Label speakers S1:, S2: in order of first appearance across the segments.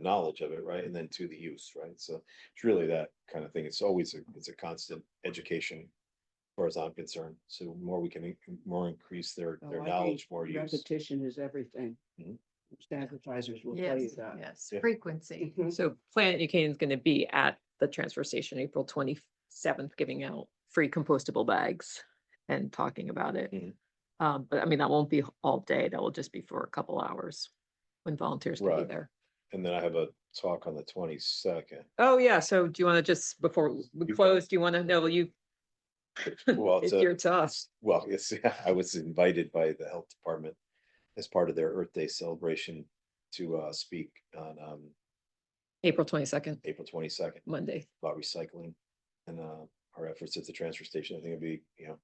S1: knowledge of it, right? And then to the use, right? So it's really that kind of thing. It's always, a it's a constant education. As far as I'm concerned, so the more we can, in- more increase their,
S2: Oh,
S1: their
S2: I think
S1: knowledge, more use.
S2: Repetition is everything.
S1: Mhm.
S2: Most Advertisers will tell you
S3: Yes,
S2: that.
S3: yes,
S1: Yeah.
S3: frequency.
S2: Mhm.
S4: So Planet New Canaan is going to be at the transfer station April twenty-seventh, giving out free compostable bags and talking about it.
S1: Mhm.
S4: Um, but I mean, that won't be all day. That will just be for a couple hours when volunteers can be
S1: Right.
S4: there.
S1: And then I have a talk on the twenty-second.
S4: Oh, yeah. So do you want to just, before we
S1: You-
S4: close, do you want to know you?
S1: Well,
S4: It's
S1: to-
S4: your to us.
S1: Well, yes, I was invited by the health department as part of their Earth Day celebration to uh speak on um
S4: April twenty-second,
S1: April twenty-second
S4: Monday.
S1: about recycling and uh our efforts at the transfer station. I think it'd be, you know,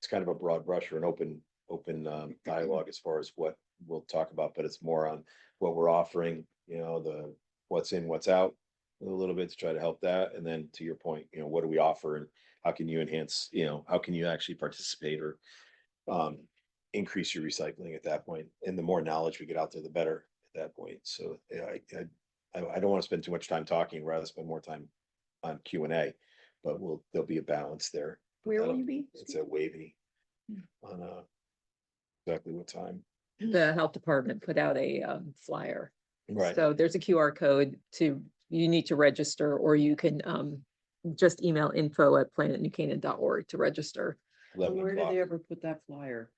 S1: it's kind of a broad brush or an open, open
S3: Mm-hmm.
S1: um dialogue as far as what we'll talk about, but it's more on what we're offering, you know, the what's in, what's out a little bit to try to help that. And then to your point, you know, what do we offer and how can you enhance, you know, how can you actually participate or um increase your recycling at that point? And the more knowledge we get out there, the better at that point. So yeah, I I I, I don't want to spend too much time talking, rather spend more time on Q and A, but we'll, there'll be a balance there. But
S3: Where will
S1: that'll-
S3: you be?
S1: It's a wavy
S3: Hmm.
S1: on uh exactly what time.
S4: The health department put out a um, flyer
S1: Right,
S4: So there's a QR code to, you need to register, or you can um just email info at planetnewcanaan.org to register.
S2: But
S1: eleven
S2: Where did they
S1: o'clock.
S2: ever put that flyer?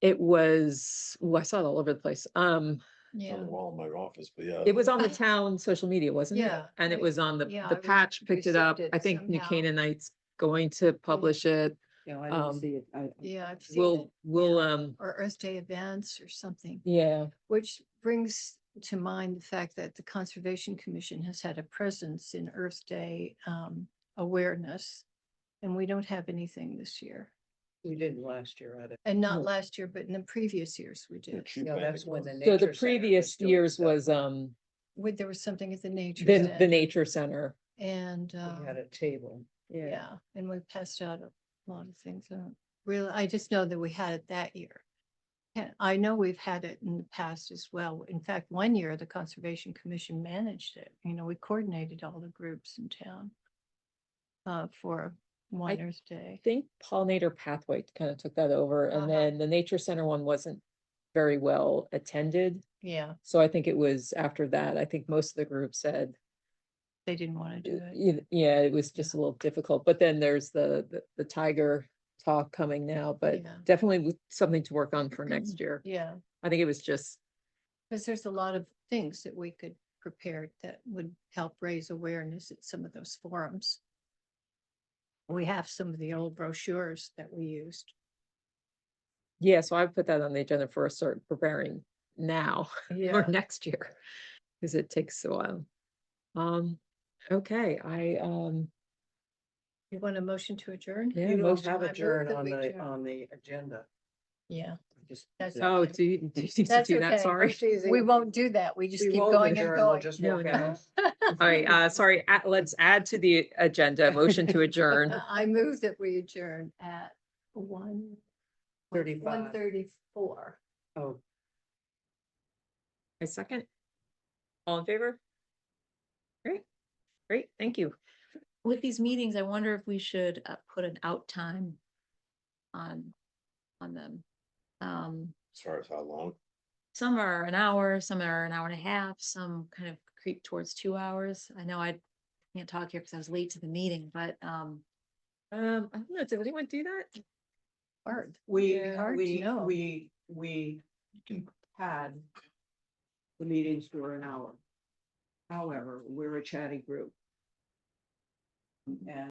S4: It was, oh, I saw it all over the place. Um,
S1: It's On
S3: Yeah.
S1: the wall in my office, but yeah.
S4: it was on the town social media, wasn't it?
S3: Yeah,
S4: And it
S3: I-
S4: was on the,
S3: yeah, I
S4: the
S3: re-
S4: patch picked it up.
S3: received
S4: I
S3: it
S4: think New
S3: somehow.
S4: Canaanites going to publish it.
S2: Yeah, I didn't
S4: Um,
S2: see it. I- I-
S3: Yeah, I've seen it.
S4: We'll, we'll, um,
S3: Or Earth Day events or something,
S4: yeah,
S3: which brings to mind the fact that the Conservation Commission has had a presence in Earth Day um awareness. And we don't have anything this year.
S2: We didn't last year either.
S3: And
S4: No.
S3: not last year, but in the previous years we
S1: the
S3: did.
S1: tree
S2: No,
S1: planting
S2: that's when
S1: was-
S2: the
S4: so
S2: Nature
S4: the
S2: Center was
S4: previous
S2: doing
S4: years
S2: stuff.
S4: was um,
S3: With, there was something at the nature.
S4: the,
S3: Center
S4: the nature center.
S3: And
S2: We
S3: um,
S2: had a table.
S3: yeah, and we passed out a lot of things. I don't Really, I just know that we had it that year. And I know we've had it in the past as well. In fact, one year, the Conservation Commission managed it. You know, we coordinated all the groups in town uh, for one Earth
S4: I
S3: Day.
S4: think pollinator pathway kind of took that over
S3: Uh-huh.
S4: and then the nature center one wasn't very well attended.
S3: Yeah,
S4: So I think it was after that, I think most of the group said,
S3: they didn't want to do it.
S4: "Y- yeah, it was just a little difficult. But then there's the, the, the tiger talk coming now, but
S3: Yeah.
S4: definitely w- something to work on for next year.
S3: Yeah,
S4: I think it was just,
S3: because there's a lot of things that we could prepare that would help raise awareness at some of those forums. We have some of the old brochures that we used.
S4: yeah, so I put that on the agenda for a start preparing now
S3: Yeah.
S4: or next year. Cause it takes a while. Um, okay, I, um,
S3: You want a motion to adjourn?
S4: yeah.
S2: You don't
S4: most-
S2: have
S3: I
S2: a
S3: move
S2: adjourn
S3: that
S2: on
S3: we
S2: the, um,
S3: adjourn.
S2: on the agenda.
S3: Yeah.
S2: Just-
S3: That's
S2: the-
S4: Oh, do you, do you need to
S3: That's
S4: do that?
S3: okay.
S4: Sorry.
S3: We won't do that. We just
S2: we
S3: keep
S2: won't
S3: going and
S2: adjourn, we'll
S3: going.
S2: just
S4: No,
S2: walk
S4: no.
S2: out.
S4: All right, uh, sorry, a- let's add to the agenda, a motion to adjourn.
S3: Uh, I move that we adjourn at one.
S2: 35.
S3: One thirty-four.
S2: Oh,
S4: A second? All in favor? Great, great, thank you.
S5: with these meetings, I wonder if we should uh, put an out time on, on them. Um,
S1: As far as how long,
S5: some are an hour, some are an hour and a half, some kind of creep towards two hours. I know I can't talk here because I was late to the meeting, but, um,
S4: Um, I don't know, did anyone do that?
S3: Hard.
S2: we,
S3: Yeah. Hard to
S2: we,
S3: know.
S2: we, we had the meetings for an hour. However, we're a chatty group. And